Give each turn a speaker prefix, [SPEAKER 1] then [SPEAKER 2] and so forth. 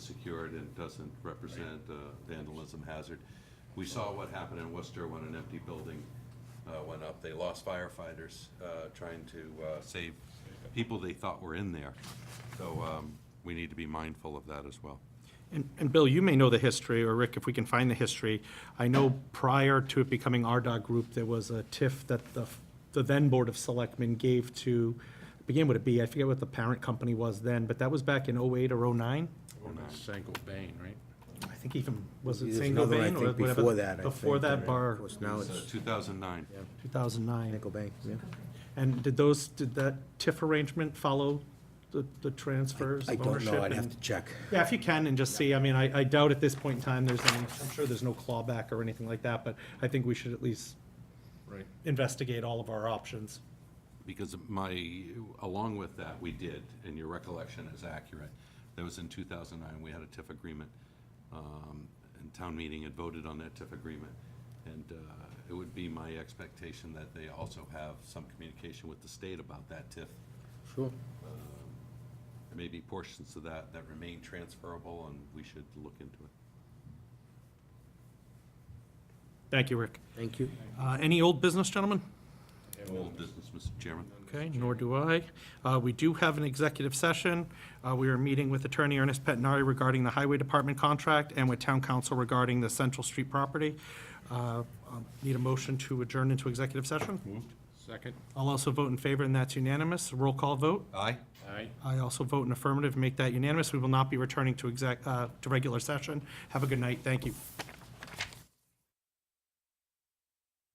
[SPEAKER 1] secured and doesn't represent uh, vandalism hazard. We saw what happened in Worcester when an empty building uh, went up. They lost firefighters uh, trying to uh, save people they thought were in there. So um, we need to be mindful of that as well.
[SPEAKER 2] And, and Bill, you may know the history, or Rick, if we can find the history. I know prior to it becoming RDOT Group, there was a TIF that the, the then Board of Selectmen gave to, began with a B, I forget what the parent company was then, but that was back in oh-eight or oh-nine?
[SPEAKER 3] Sanko Bain, right?
[SPEAKER 2] I think even, was it
[SPEAKER 4] There's
[SPEAKER 2] Sango
[SPEAKER 4] another, I
[SPEAKER 2] Bain or
[SPEAKER 4] think,
[SPEAKER 2] whatever?
[SPEAKER 4] before that, I
[SPEAKER 2] Before
[SPEAKER 4] think,
[SPEAKER 2] that
[SPEAKER 4] right?
[SPEAKER 2] bar,
[SPEAKER 4] Of course, now
[SPEAKER 1] So
[SPEAKER 4] it's
[SPEAKER 1] 2009.
[SPEAKER 2] two thousand nine.
[SPEAKER 4] Nickel Bank, yeah.
[SPEAKER 2] And did those, did that TIF arrangement follow the, the transfers
[SPEAKER 4] I
[SPEAKER 2] of
[SPEAKER 4] don't
[SPEAKER 2] ownership?
[SPEAKER 4] know, I'd have
[SPEAKER 2] and-
[SPEAKER 4] to check.
[SPEAKER 2] Yeah, if you can, and just see, I mean, I, I doubt at this point in time, there's any, I'm sure there's no clawback or anything like that, but I think we should at least
[SPEAKER 3] Right.
[SPEAKER 2] investigate all of our options.
[SPEAKER 1] Because my, along with that, we did, and your recollection is accurate, that was in 2009, we had a TIF agreement, um, and town meeting had voted on that TIF agreement. And uh, it would be my expectation that they also have some communication with the state about that TIF.
[SPEAKER 4] Sure.
[SPEAKER 1] There may be portions of that that remain transferable, and we should look into it.
[SPEAKER 2] Thank you, Rick.
[SPEAKER 4] Thank you.
[SPEAKER 2] Uh, any old business, gentlemen?
[SPEAKER 1] Old business, Mr. Chairman.
[SPEAKER 2] Okay, nor do I. Uh, We do have an executive session. Uh, We are meeting with Attorney Ernest Pettinari regarding the Highway Department contract and with Town Council regarding the Central Street property. Uh, um, Need a motion to adjourn into executive session?
[SPEAKER 3] Second?
[SPEAKER 2] I'll also vote in favor, and that's unanimous. Roll call vote.
[SPEAKER 1] Aye?
[SPEAKER 3] Aye.
[SPEAKER 2] I also vote in affirmative, make that unanimous. We will not be returning to exec, uh, to regular session. Have a good night. Thank you.